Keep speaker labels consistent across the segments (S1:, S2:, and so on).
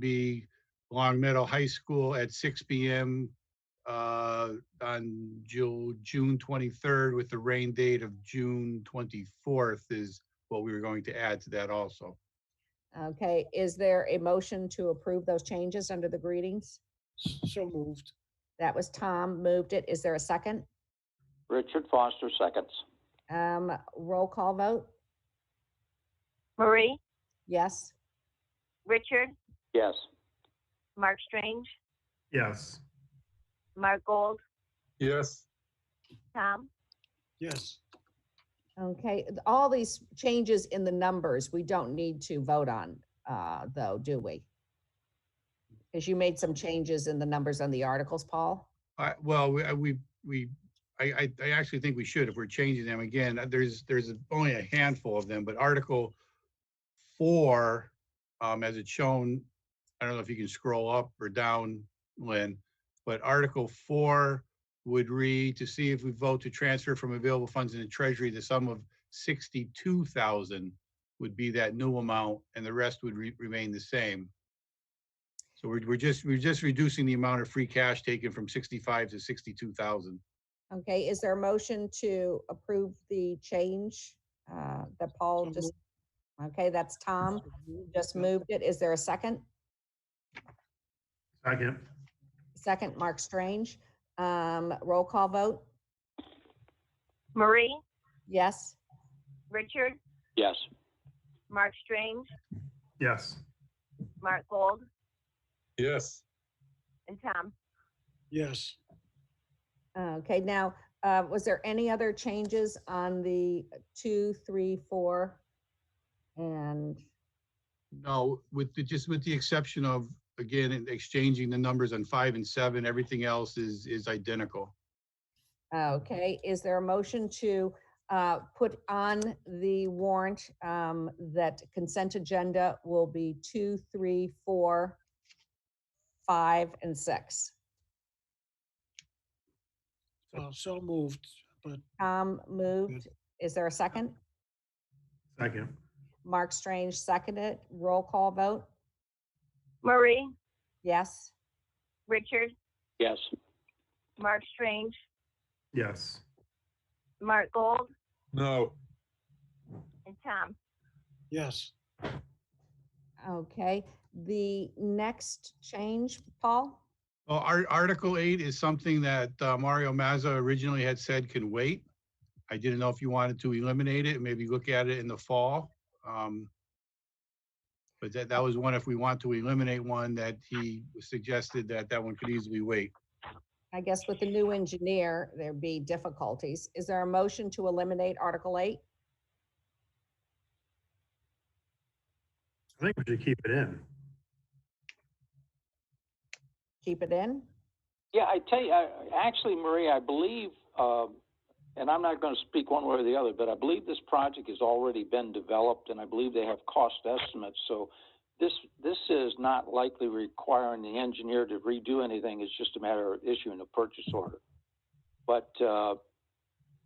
S1: be Long Meadow High School at six P M. Uh, on Ju- June twenty-third with the rain date of June twenty-fourth is what we were going to add to that also.
S2: Okay, is there a motion to approve those changes under the greetings?
S3: So moved.
S2: That was Tom moved it. Is there a second?
S4: Richard Foster seconds.
S2: Um, roll call vote?
S5: Marie,
S2: Yes?
S5: Richard,
S4: Yes.
S5: Mark Strange,
S6: Yes.
S5: Mark Gold,
S6: Yes.
S5: Tom,
S3: Yes.
S2: Okay, th- all these changes in the numbers, we don't need to vote on, uh, though, do we? Because you made some changes in the numbers on the articles, Paul?
S1: I well, we, I- we, we, I, I, I actually think we should, if we're changing them again, uh, there's, there's only a handful of them, but Article four, um, as it's shown, I don't know if you can scroll up or down, Lynn, but Article four would read to see if we vote to transfer from available funds in the treasury, the sum of sixty-two thousand would be that new amount, and the rest would re- remain the same. So we're, we're just, we're just reducing the amount of free cash taken from sixty-five to sixty-two thousand.
S2: Okay, is there a motion to approve the change, uh, that Paul
S3: So
S2: just? Okay, that's Tom, Um, just
S3: Yep.
S2: moved it. Is there a second?
S6: Second.
S2: Second, Mark Strange. Um, roll call vote?
S5: Marie,
S2: Yes?
S5: Richard,
S4: Yes.
S5: Mark Strange,
S6: Yes.
S5: Mark Gold,
S6: Yes.
S5: and Tom.
S3: Yes.
S2: Okay, now, uh, was there any other changes on the two, three, four? And,
S1: No, with the, just with the exception of, again, in exchanging the numbers on five and seven, everything else is, is identical.
S2: okay, is there a motion to, uh, put on the warrant, um, that consent agenda will be two, three, four, five, and six?
S3: Uh, so moved, but
S2: Tom moved. Is there a second?
S6: Second.
S2: Mark Strange seconded. Roll call vote?
S5: Marie,
S2: Yes?
S5: Richard,
S4: Yes.
S5: Mark Strange,
S6: Yes.
S5: Mark Gold,
S6: No.
S5: and Tom.
S3: yes.
S2: Okay, the next change, Paul?
S1: Well, Ar- Article eight is something that uh, Mario Mazza originally had said can wait. I didn't know if you wanted to eliminate it, maybe look at it in the fall. um, But that, that was one, if we want to eliminate one, that he suggested that that one could easily wait.
S2: I guess with the new engineer, there'd be difficulties. Is there a motion to eliminate Article 8?
S6: I think we should keep it in.
S2: Keep it in?
S4: Yeah, I tell you, I, actually, Marie, I believe, um, and I'm not going to speak one way or the other, but I believe this project has already been developed, and I believe they have cost estimates. So this this is not likely requiring the engineer to redo anything. It's just a matter of issuing a purchase order. But uh,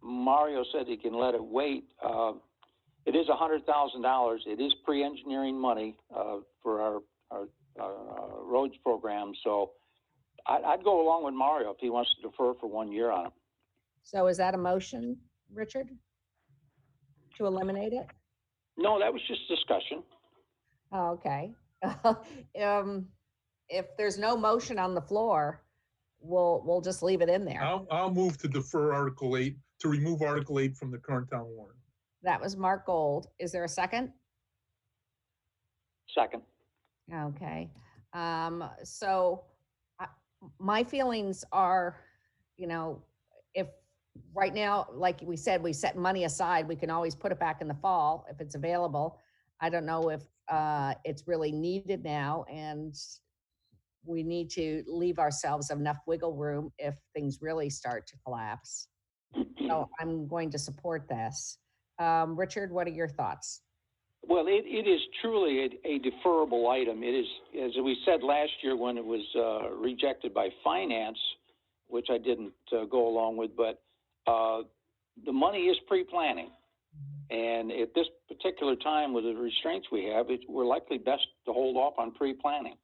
S4: Mario said he can let it wait. Uh, it is $100,000. It is pre-engineering money uh, for our, our, our uh, roads program. So I'd, I'd go along with Mario if he wants to defer for one year on it.
S2: So is that a motion, Richard? To eliminate it?
S4: No, that was just discussion.
S2: Oh, Okay. Um, If there's no motion on the floor, we'll, we'll just leave it in
S1: Oh.
S2: there.
S7: I'll, I'll move to defer Article 8, to remove Article 8 from the current town warrant.
S2: That was Mark Gold. Is there a second?
S4: Second.
S2: Okay, um, so I- my feelings are, you know, if, right now, like we said, we set money aside, we can always put it back in the fall if it's available. I don't know if, uh, it's really needed now and we need to leave ourselves enough wiggle room if things really start to collapse. So I'm going to support this. Um, Richard, what are your thoughts?
S4: Well, it, it is truly a, a deferrable item. It is, as we said last year when it was uh, rejected by finance, which I didn't uh, go along with, but uh, the money is pre-planning. And at this particular time with the restraints we have, it, we're likely best to hold off on pre-planning.